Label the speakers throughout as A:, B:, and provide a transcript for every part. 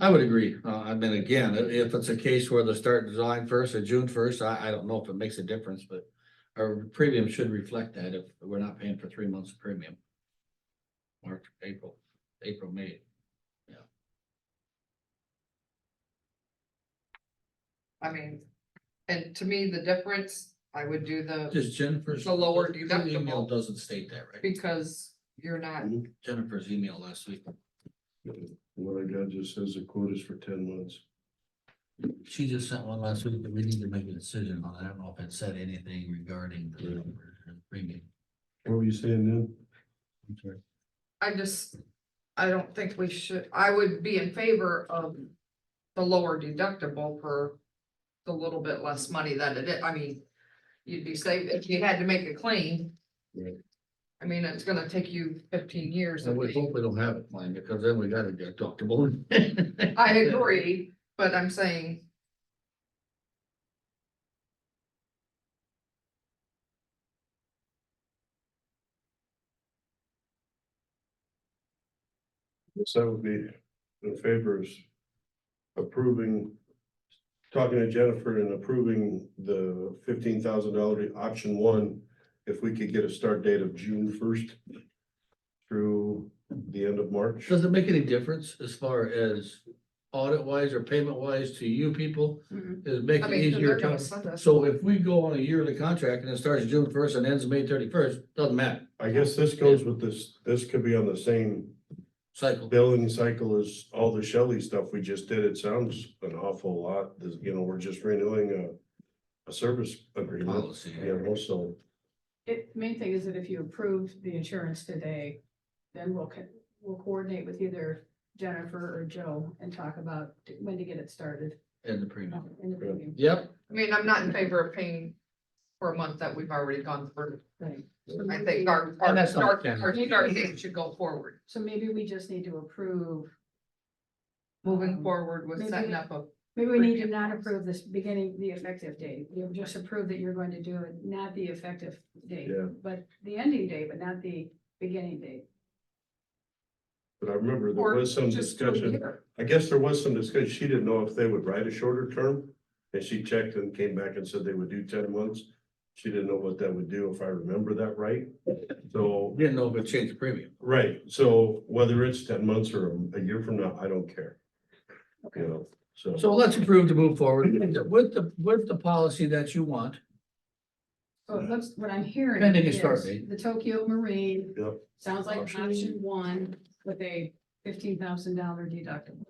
A: I would agree. Uh, I mean, again, i- if it's a case where they start July first or June first, I, I don't know if it makes a difference, but our premium should reflect that if we're not paying for three months of premium. March, April, April, May.
B: I mean, and to me, the difference, I would do the,
A: Just Jennifer's.
B: The lower
A: her Email
B: deductible.
A: doesn't state that, right?
B: because you're not,
A: Jennifer's email last week,
C: What I got just says the quote is for ten months.
A: she just sent one last week, but we need to make a decision on it. I don't know if it said anything regarding the premium.
C: What were you saying then?
B: I just, I don't think we should, I would be in favor of the lower deductible for the little bit less money that it is, I mean, you'd be saved if you had to make a claim.
C: Right.
B: I mean, it's gonna take you fifteen years.
A: So
B: of
A: we
B: being-
A: hope we don't have it, mine, because then we got a deductible.
B: I agree, but I'm saying.
C: Yes, I would be in favor of approving, talking to Jennifer and approving the fifteen thousand dollar option one. If we could get a start date of June first through the end of March.
A: Does it make any difference as far as audit wise or payment wise to you people? Does it make
B: I
A: it
B: mean, 'cause
A: easier
B: they're gonna
A: to?
B: send us.
A: So if we go on a yearly contract and it starts June first and ends May thirty first, doesn't matter,
C: I guess this goes with this, this could be on the same
A: cycle.
C: billing cycle is all the Shelley stuff we just did. It sounds an awful lot. This- You know, we're just renewing a, a service agreement.
A: Policy.
C: You know, so
D: It, main thing is that if you approve the insurance today, then we'll, co- we'll coordinate with either Jennifer or Joe and talk about when to get it started.
A: And the
D: uh,
A: premium.
D: in the review.
A: Yep,
B: I mean, I'm not in favor of paying for a month that we've already gone through.
D: Right. So
B: I
D: maybe-
B: think our, our,
A: that's not
B: our,
A: fair.
B: our start date should go forward,
D: So maybe we just need to approve.
B: moving
D: um,
B: forward with setting
D: Maybe-
B: up a,
D: Maybe we need to
B: Premium.
D: not approve this beginning, the effective date. You just approve that you're going to do it, not the effective date.
C: Yeah.
D: But the ending date, but not the beginning date.
C: But I remember there
B: Or
C: was some
B: just to a
C: discussion,
B: year.
C: I guess there was some discussion, she didn't know if they would write a shorter term. And she checked and came back and said they would do ten months. She didn't know what that would do, if I remember that right. So,
A: didn't know if it changed the premium.
C: right, so whether it's ten months or a year from now, I don't care, you
D: Okay.
C: know, so.
A: So let's approve to move forward with the, with the policy that you want.
D: So it looks, what I'm hearing.
A: Pending a start
D: is
A: date.
D: The Tokyo Marine.
C: Yep.
D: Sounds like
C: Option.
D: option one with a fifteen thousand dollar deductible.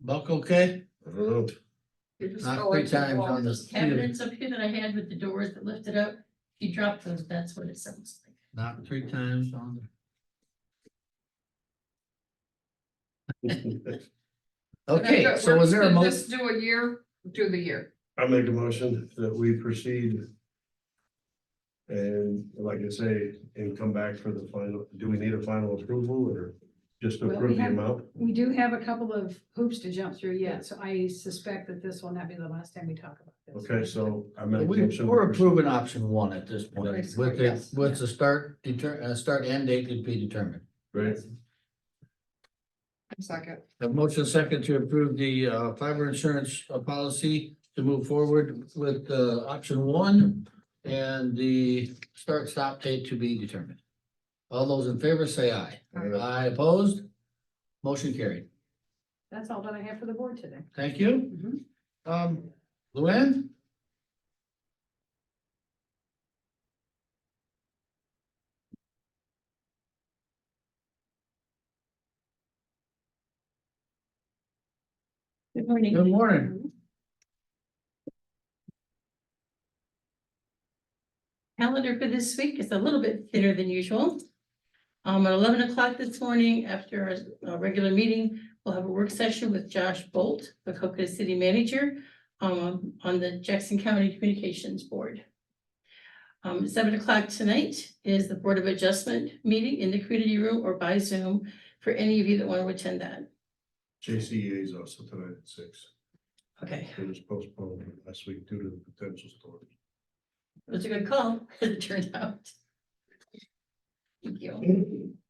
A: Buck, okay?
C: I don't know.
B: you're just
A: Not
B: going
A: three times
B: to-
A: on
E: Those
A: this.
E: cabinets up here that I had with the doors that lifted up, if you drop those, that's what it sounds like.
A: Not three times on the. Okay, so is there a
B: We're-
A: mo-
B: Just do a year, do the year,
C: I make a motion that we proceed. And like I say, and come back for the final, do we need a final approval or just
D: Well, we
C: approve the
D: have-
C: amount?
D: We do have a couple of hoops to jump through yet, so I suspect that this will not be the last time we talk about this.
C: Okay, so I make. a
A: We,
C: motion
A: we're
C: to proceed.
A: approving option one at this point, with
B: Basically,
A: the,
B: yes.
A: with the start deter, uh, start and date to be determined.
C: Right,
B: second,
A: The motion second to approve the, uh, fiber insurance uh, policy to move forward with, uh, option one. And the start stop date to be determined. All those in favor say aye.
D: Uh-huh.
B: Aye.
A: Aye opposed? Motion carried.
D: That's all that I have for the board today.
A: Thank you.
D: Mhm.
A: Um, Luann?
E: Good morning.
A: Good morning.
E: Calendar for this week is a little bit thinner than usual. Um, at eleven o'clock this morning, after our- our regular meeting, we'll have a work session with Josh Bolt, the Cocoa City Manager, um, on the Jackson County Communications Board. Um, seven o'clock tonight is the Board of Adjustment meeting in the community room or by Zoom for any of you that want to attend that.
C: JCEA E is also tonight at six.
E: Okay.
C: It was postponed last week due to the potential storm.
E: It was a good call, as it turned out. Thank you.